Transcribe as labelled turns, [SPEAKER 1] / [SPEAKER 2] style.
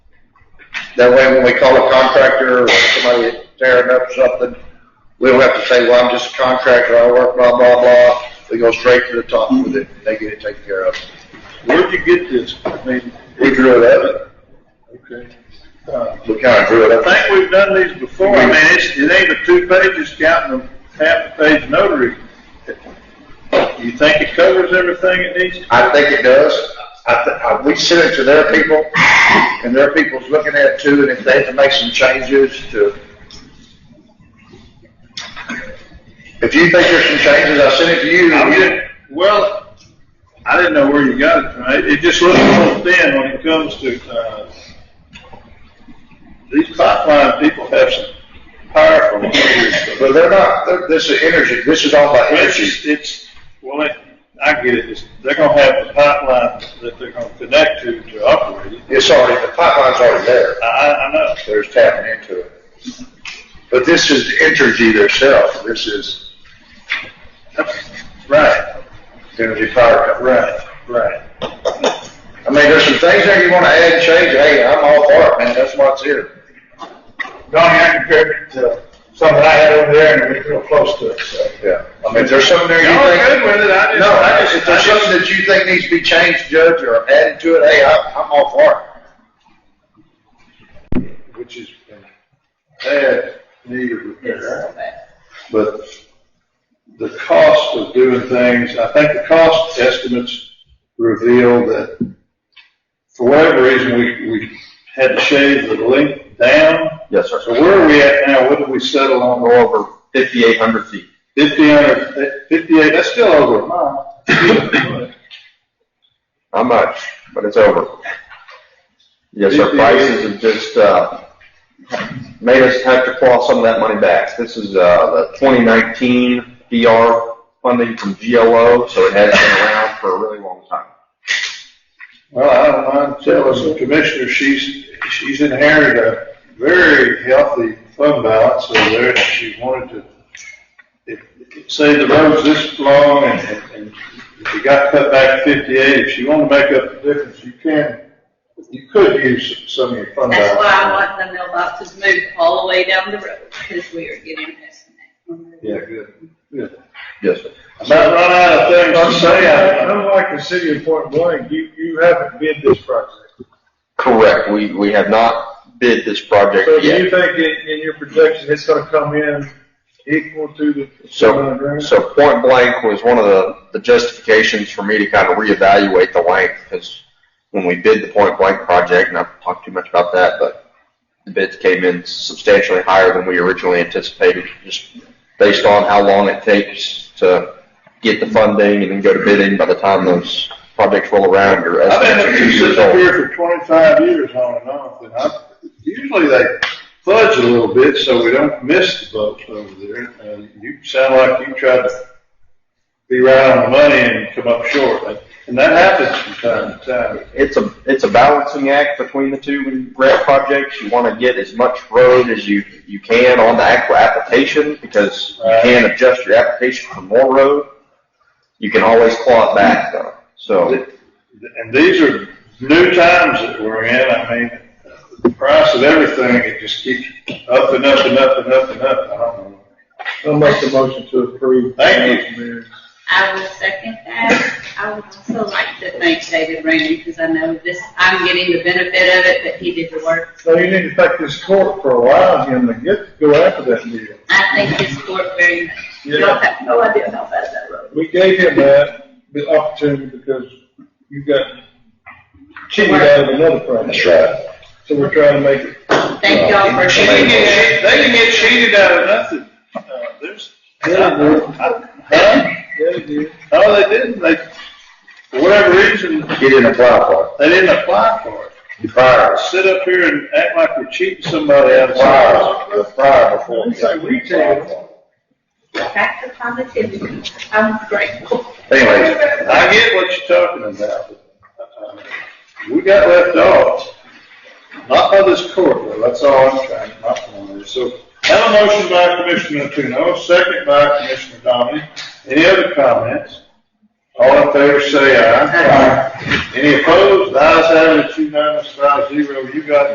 [SPEAKER 1] That way, when we call a contractor or somebody tearing up something, we don't have to say, well, I'm just a contractor, I work blah, blah, blah. We go straight to the top with it, they get it taken care of.
[SPEAKER 2] Where'd you get this? I mean,
[SPEAKER 1] We drew it up,
[SPEAKER 2] okay. Uh,
[SPEAKER 1] we kinda drew it
[SPEAKER 2] I
[SPEAKER 1] up.
[SPEAKER 2] think we've done these before. I mean, it's, it ain't but two pages counting the half the page notary. You think it covers everything it needs to?
[SPEAKER 1] I think it does. I, th- I, we sent it to their people, and their people's looking at it too, and if they have to make some changes to. If you think there's some changes, I sent it to you.
[SPEAKER 2] I didn't, well, I didn't know where you got it from. It, it just looks so thin when it comes to, uh, these pipeline people have some powerful leaders.
[SPEAKER 1] But they're not, they're, this is energy, this is all about
[SPEAKER 2] It's,
[SPEAKER 1] energy.
[SPEAKER 2] just- it's, well, it- I get it. It's- They're gonna have a pipeline that they're gonna connect to, to operate it.
[SPEAKER 1] It's already, the pipeline's already there,
[SPEAKER 2] I, I, I know.
[SPEAKER 1] they're just tapping into it. But this is the energy themselves, this is
[SPEAKER 2] Right,
[SPEAKER 1] energy power company.
[SPEAKER 2] right, right.
[SPEAKER 1] I mean, there's some things there you wanna add and change, hey, I'm all for it, man, that's why it's here.
[SPEAKER 3] Donnie, I compared it to something I had over there and it was real close to it, so.
[SPEAKER 1] Yeah. I mean, if there's something there you
[SPEAKER 2] Y'all
[SPEAKER 1] think.
[SPEAKER 2] are good with it, I just-
[SPEAKER 1] No,
[SPEAKER 2] I
[SPEAKER 1] I
[SPEAKER 2] just-
[SPEAKER 1] if there's
[SPEAKER 2] I just-
[SPEAKER 1] something that you think needs to be changed, Judge, or added to it, hey, I'm, I'm all for it. Which is,
[SPEAKER 2] That needed repair.
[SPEAKER 4] Yes.
[SPEAKER 2] but the cost of doing things, I think the cost estimates reveal that for whatever reason, we, we had to shave the length down.
[SPEAKER 5] Yes, sir.
[SPEAKER 2] So where are we at now? What did we settle on?
[SPEAKER 5] Go over fifty-eight hundred feet.
[SPEAKER 2] Fifty under, fifty-eight, that's still over a mile.
[SPEAKER 5] Not much, but it's over. Yes, sir, prices have just, uh, made us have to claw some of that money back. This is, uh, the twenty nineteen DR funding from GOO, so it has been around for a really long time.
[SPEAKER 2] Well, I don't mind telling the commissioner, she's, she's inherited a very healthy fund balance, so there, she wanted to, if- if- say the road's this long and, and- and if you got cut back fifty-eight, if you want to make up the difference, you can, you could use some of your fund
[SPEAKER 4] That's
[SPEAKER 2] balance.
[SPEAKER 4] why I want the mailboxes moved all the way down the road, because we are getting this.
[SPEAKER 2] Yeah, good. Good.
[SPEAKER 5] Yes, sir.
[SPEAKER 2] About run out of things to say, I, I
[SPEAKER 3] Unlike the city of Point Blank, you, you haven't bid this project.
[SPEAKER 5] Correct, we, we have not bid this project
[SPEAKER 3] So do you
[SPEAKER 5] yet.
[SPEAKER 3] think in, in your projection, it's gonna come in equal to the seven
[SPEAKER 5] So,
[SPEAKER 3] hundred?
[SPEAKER 5] so point blank was one of the, the justifications for me to kind of reevaluate the length, because when we bid the point blank project, and I've talked too much about that, but the bids came in substantially higher than we originally anticipated, just based on how long it takes to get the funding and then go to bidding by the time those projects roll around, your
[SPEAKER 2] I've been a
[SPEAKER 5] estimates are two
[SPEAKER 2] musician
[SPEAKER 5] years old.
[SPEAKER 2] here for twenty-five years on and off, and I, usually they fudge a little bit so we don't miss the votes over there. Uh, you sound like you tried to be right on the money and come up short, and that happens from time to time.
[SPEAKER 5] it's a it's a balancing act between the two when you grant projects. You want to get as much road as you you can on the actual application because you
[SPEAKER 2] Right.
[SPEAKER 5] can adjust your application for more road. You can always claw it back though. So
[SPEAKER 2] And these are new times that we're in, I mean, the price of everything, it just keeps up and up and up and up and up, I don't know.
[SPEAKER 3] I'll make the motion to approve.
[SPEAKER 2] Thank
[SPEAKER 3] you.
[SPEAKER 4] I will second that. I would also like to thank David Rainey, because I know this, I'm getting the benefit of it, but he did the work.
[SPEAKER 3] So you need to take this court for a while, and to get, go after that deal.
[SPEAKER 4] I thank his court very much. Y'all have no idea how bad that road.
[SPEAKER 3] We gave him that, the opportunity, because you got cheated out of another
[SPEAKER 1] that's
[SPEAKER 3] project.
[SPEAKER 1] right.
[SPEAKER 3] So we're trying to make it
[SPEAKER 4] is. Thank y'all for.
[SPEAKER 2] They can get, cheat- they can get cheated out of nothing, uh, there's.
[SPEAKER 3] Yeah, dude.
[SPEAKER 2] Huh?
[SPEAKER 3] Yeah, dude.
[SPEAKER 2] No, they didn't. They, for whatever reason,
[SPEAKER 1] You didn't apply for it,
[SPEAKER 2] they didn't apply for it.
[SPEAKER 1] you fired us.
[SPEAKER 2] Sit up here and act like we're cheating somebody out of
[SPEAKER 1] Fire
[SPEAKER 2] something.
[SPEAKER 1] us, you fired before.
[SPEAKER 3] It's like we take it.
[SPEAKER 4] Back to positivity. I'm grateful.
[SPEAKER 1] Anyway,
[SPEAKER 2] I get what you're talking about. but, uh, We got left off. Not by this court, though. That's all I'm trying, my point is. So, have a motion by Commissioner Tuno, second by Commissioner Dominic. Any other comments? All in favor, say aye. Aye. Any opposed? The ayes have it, it's unanimous, five zero. You got